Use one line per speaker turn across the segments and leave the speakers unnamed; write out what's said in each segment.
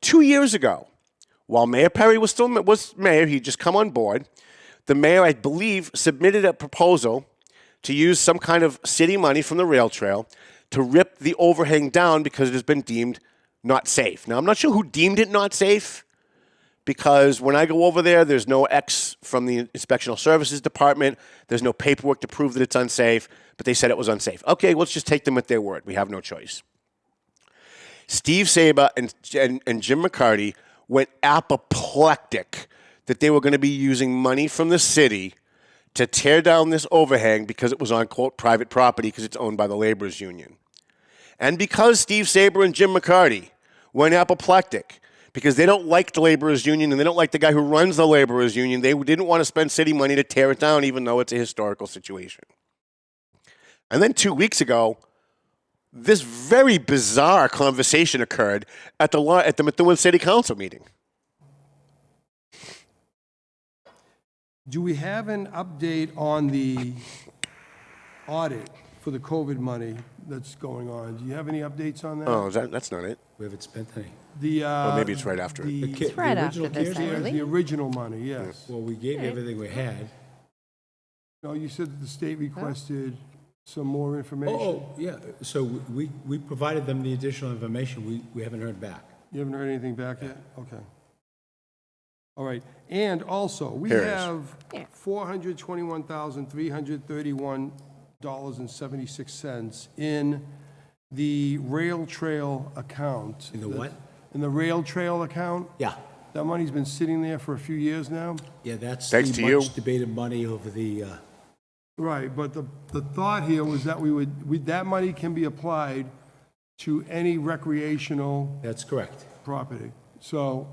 two years ago, while Mayor Perry was still was mayor, he'd just come on board. The mayor, I believe, submitted a proposal to use some kind of city money from the rail trail to rip the overhang down because it has been deemed not safe. Now, I'm not sure who deemed it not safe because when I go over there, there's no X from the Inspectional Services Department. There's no paperwork to prove that it's unsafe, but they said it was unsafe. Okay, let's just take them at their word. We have no choice. Steve Saba and, and, and Jim McCarty went apoplectic that they were going to be using money from the city to tear down this overhang because it was on quote private property because it's owned by the laborers union. And because Steve Saber and Jim McCarty went apoplectic because they don't like the laborers union and they don't like the guy who runs the laborers union, they didn't want to spend city money to tear it down even though it's a historical situation. And then 2 weeks ago, this very bizarre conversation occurred at the law, at the Methuen City Council meeting.
Do we have an update on the audit for the COVID money that's going on? Do you have any updates on that?
Oh, is that, that's not it.
We haven't spent any.
The, uh.
maybe it's right after it.
the-
The ki-
the-
the
right
original
after this,
CARES Act?
Really?
The original money, yes.
Well, we gave everything we had.
No, you said that the state requested some more
Oh,
information.
oh, yeah, so we, we provided them the additional information, we, we haven't heard back.
You haven't heard anything back yet? Okay. All right, and also, we
Here it is.
have
Yeah.
four hundred twenty-one thousand, three hundred thirty-one dollars and seventy-six cents in the rail trail account.
In the what?
In the rail trail account.
Yeah,
That money's been sitting there for a few years now.
yeah, that's
Thanks to
the
you.
much debated money over the, uh,
Right, but the, the thought here was that we would, we- that money can be applied to any recreational
that's correct,
property. So,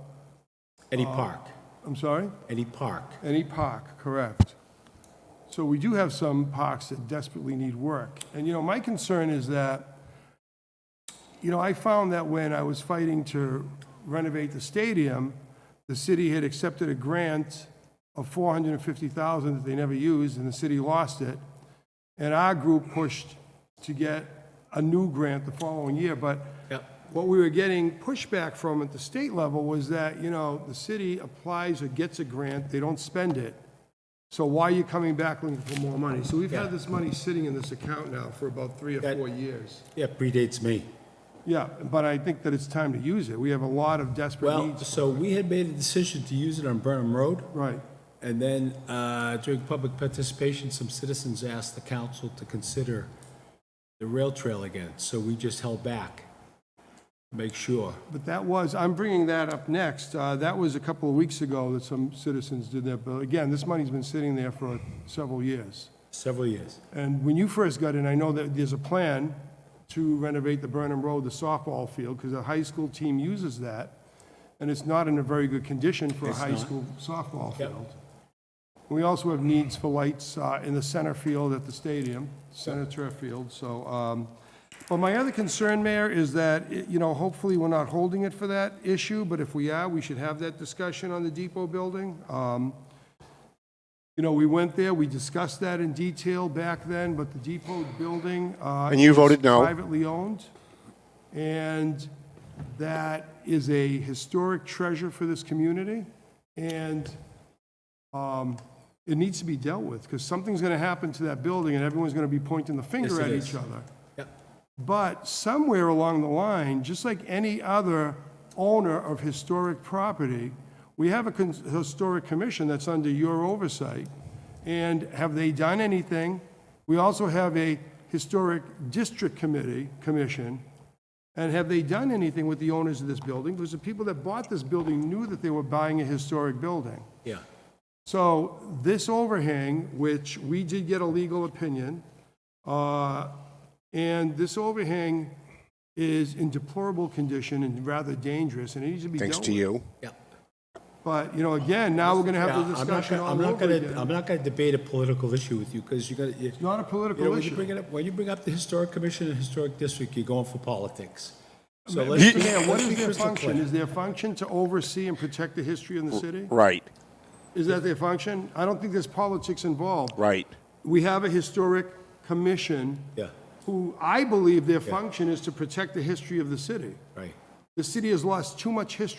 any park,
I'm sorry?
any park.
Any park, correct. So we do have some parks that desperately need work. And, you know, my concern is that, you know, I found that when I was fighting to renovate the stadium, the city had accepted a grant of 450,000 that they never used, and the city lost it. And our group pushed to get a new grant the following year, but
Yep.
what we were getting pushback from at the state level was that, you know, the city applies or gets a grant, they don't spend it. So why are you coming back looking for more money? So we've
Yeah.
had this money sitting in this account now for about three or
That-
four years.
Yeah, predates me.
Yeah, but I think that it's time to use it. We have a lot of desperate
Well,
needs.
so we had made a decision to use it on Burnham Road.
Right,
And then uh, during public participation, some citizens asked the council to consider the rail trail again, so we just held back, make sure.
but that was, I'm bringing that up next. Uh, That was a couple of weeks ago that some citizens did that, but again, this money's been sitting there for several years.
Several years.
And when you first got in, I know that there's a plan to renovate the Burnham Road, the softball field, because the high school team uses that, and it's not in a very good condition for a
It's
high
not.
school softball
Yep.
field. We also have needs for lights uh, in the center field at the stadium, center turf field, so, um, but my other concern, Mayor, is that, it- you know, hopefully we're not holding it for that issue, but if we are, we should have that discussion on the depot building. Um, You know, we went there, we discussed that in detail back then, but the depot building. uh,
And you
is
voted no.
Privately owned, and that is a historic treasure for this community, and um, it needs to be dealt with, because something's going to happen to that building, and everyone's going to be pointing the
Yes,
finger
it
at
is.
each other.
Yep.
But somewhere along the line, just like any other owner of historic property, we have a con- historic commission that's under your oversight. And have they done anything? We also have a historic district committee, commission. And have they done anything with the owners of this building? Because the people that bought this building knew that they were buying a historic building.
Yeah.
So this overhang, which we did get a legal opinion, uh, and this overhang is in deplorable condition and rather dangerous, and it needs to be dealt
Thanks
with.
to you.
Yeah.
But, you know, again, now we're going to
Yeah,
have
I'm
the
not
discussion
gonna- I'm
all
not
over
gonna- I'm
again.
not going to debate a political issue with you, because you're going to, you
Not a
you know,
political
when you bring
issue.
it up, when you bring up the Historic Commission and Historic District, you're going for politics. So let's
Mr.
just-
Mayor, what
let's be
is their
crystal
function?
clear.
Is their function to oversee and protect the history in the city?
Right,
Is that their function? I don't think there's politics involved.
right.
We have a historic commission
Yeah,
who I believe their function is to protect the history of the city.
right.
The city has lost too much history